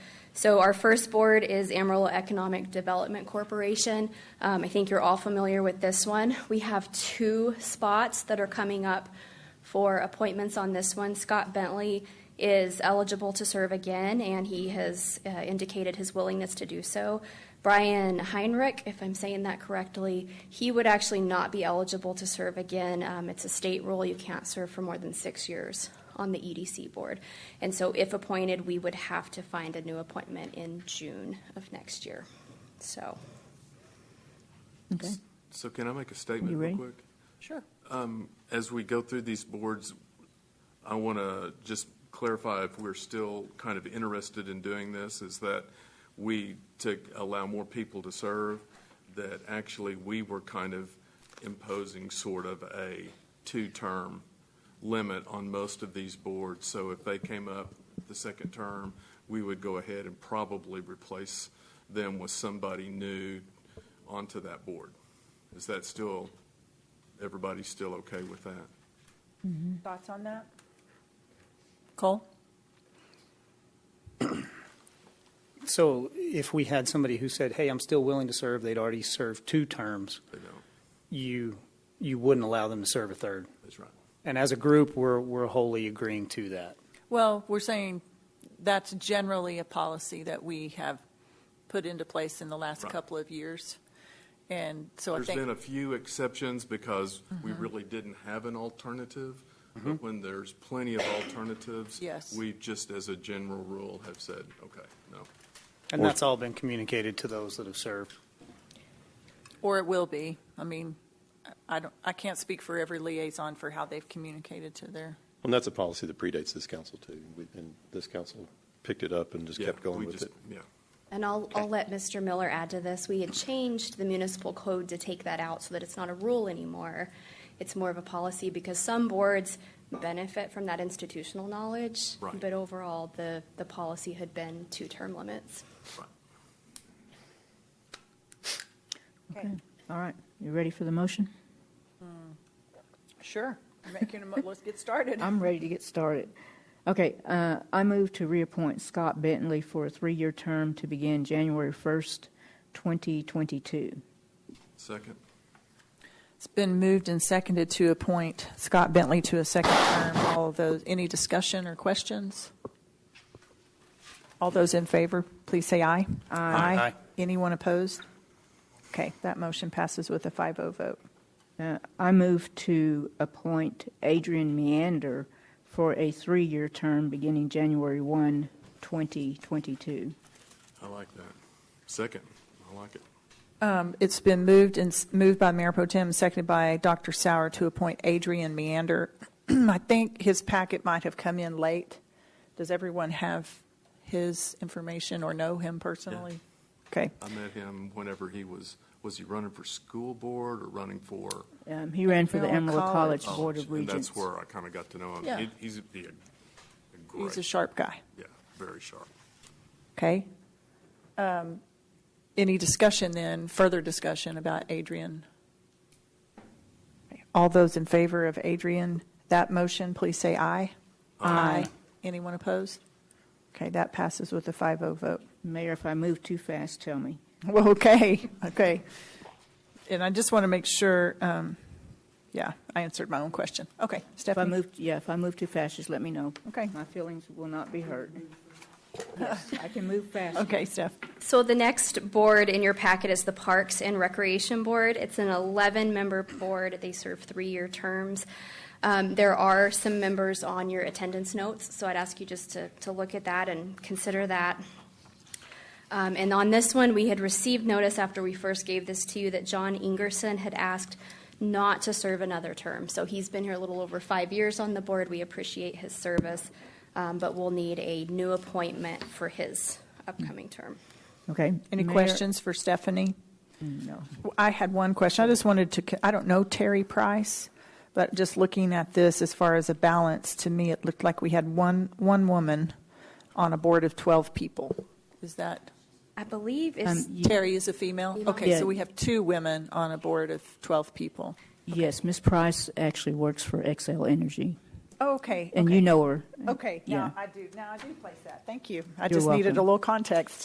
So our first board is Amarillo Economic Development Corporation. Um, I think you're all familiar with this one. We have two spots that are coming up for appointments on this one. Scott Bentley is eligible to serve again, and he has uh, indicated his willingness to do so. Brian Heinrich, if I'm saying that correctly, he would actually not be eligible to serve again. Um, it's a state rule, you can't serve for more than six years on the EDC board. And so, if appointed, we would have to find a new appointment in June of next year. So, Okay, So can I make a statement You real ready? quick? sure. As we go through these boards, I want to just clarify if we're still kind of interested in doing this, is that we, to allow more people to serve, that actually we were kind of imposing sort of a two-term limit on most of these boards. So if they came up the second term, we would go ahead and probably replace them with somebody new onto that board. Is that still, everybody still okay with that? Thoughts on that? Cole? So if we had somebody who said, hey, I'm still willing to serve, they'd already served two terms, They don't. you, you wouldn't allow them to serve a third. That's right. And as a group, we're, we're wholly agreeing to that. Well, we're saying that's generally a policy that we have put into place in the last Right. couple of years. And so I There's been a think, few exceptions because we really didn't have an alternative. Mm-hmm. But when there's plenty of alternatives. Yes. We just, as a general rule, have said, okay, no. And that's all been communicated to those that have served. or it will be. I mean, I- I don't, I can't speak for every liaison for how they've communicated to their, And that's a policy that predates this council too. We- And this council picked it up and just Yeah, kept we going with just- it. Yeah. and I'll, I'll let Mr. Miller add to this. We had changed the municipal code to take that out so that it's not a rule anymore. It's more of a policy because some boards benefit from that institutional knowledge. Right. But overall, the, the policy had been two term limits. right. Okay, all right. You ready for the motion? Sure. making a, mo- let's get started. I'm ready to get started. Okay, uh, I move to reappoint Scott Bentley for a three-year term to begin January 1st, 2022. Second, It's been moved and seconded to appoint Scott Bentley to a second term. All of those, any discussion or questions? All those in favor, please say aye. Aye. Anyone opposed? Okay, that motion passes with a 5-0 vote. Uh, I move to appoint Adrian Meander for a three-year term beginning January 1, 2022. I like that. Second, I like it. Um, It's been moved and, s- moved by Mayor Pro Tem, seconded by Dr. Sauer to appoint Adrian Meander. I think his packet might have come in late. Does everyone have his information or know him personally? Okay. I met him whenever he was, was he running for school board or running for? Um, He ran for the Amarillo Amarillo College. College Board of Oh, And Regents. that's where I kind of got to know him. Yeah. He- He's a, he a- a He's a great, sharp guy. yeah, very sharp. Okay. Um, Any discussion then, further discussion about Adrian? All those in favor of Adrian, that motion, please say aye. Aye. Anyone opposed? Okay, that passes with a 5-0 vote. Mayor, if I move too fast, tell me. Well, okay, okay. And I just want to make sure, um, yeah, I answered my own question. Okay, If I Stephanie? move, yeah, if I move too fast, just let me know. Okay. My feelings will not be hurt. Yes, I can move fast. Okay, Steph. So the next board in your packet is the Parks and Recreation Board. It's an 11-member board. They serve three-year terms. Um, There are some members on your attendance notes, so I'd ask you just to, to look at that and consider that. Um, And on this one, we had received notice after we first gave this to you that John Ingerson had asked not to serve another term. So he's been here a little over five years on the board. We appreciate his service, um, but we'll need a new appointment for his upcoming term. Okay. Any Mayor- questions for Stephanie? No. I had one question. I just wanted to, I don't know Terry Price, but just looking at this as far as a balance, to me, it looked like we had one, one woman on a board of 12 people. Is that, I believe it's, Um, you- Terry is a female? Okay, Yeah. so we have two women on a board of 12 people. Yes, Ms. Price actually works for XL Energy. Okay. And you know her. Okay. Now Yeah. I do, now I do place that. Thank you. I You're just needed a welcome. little context.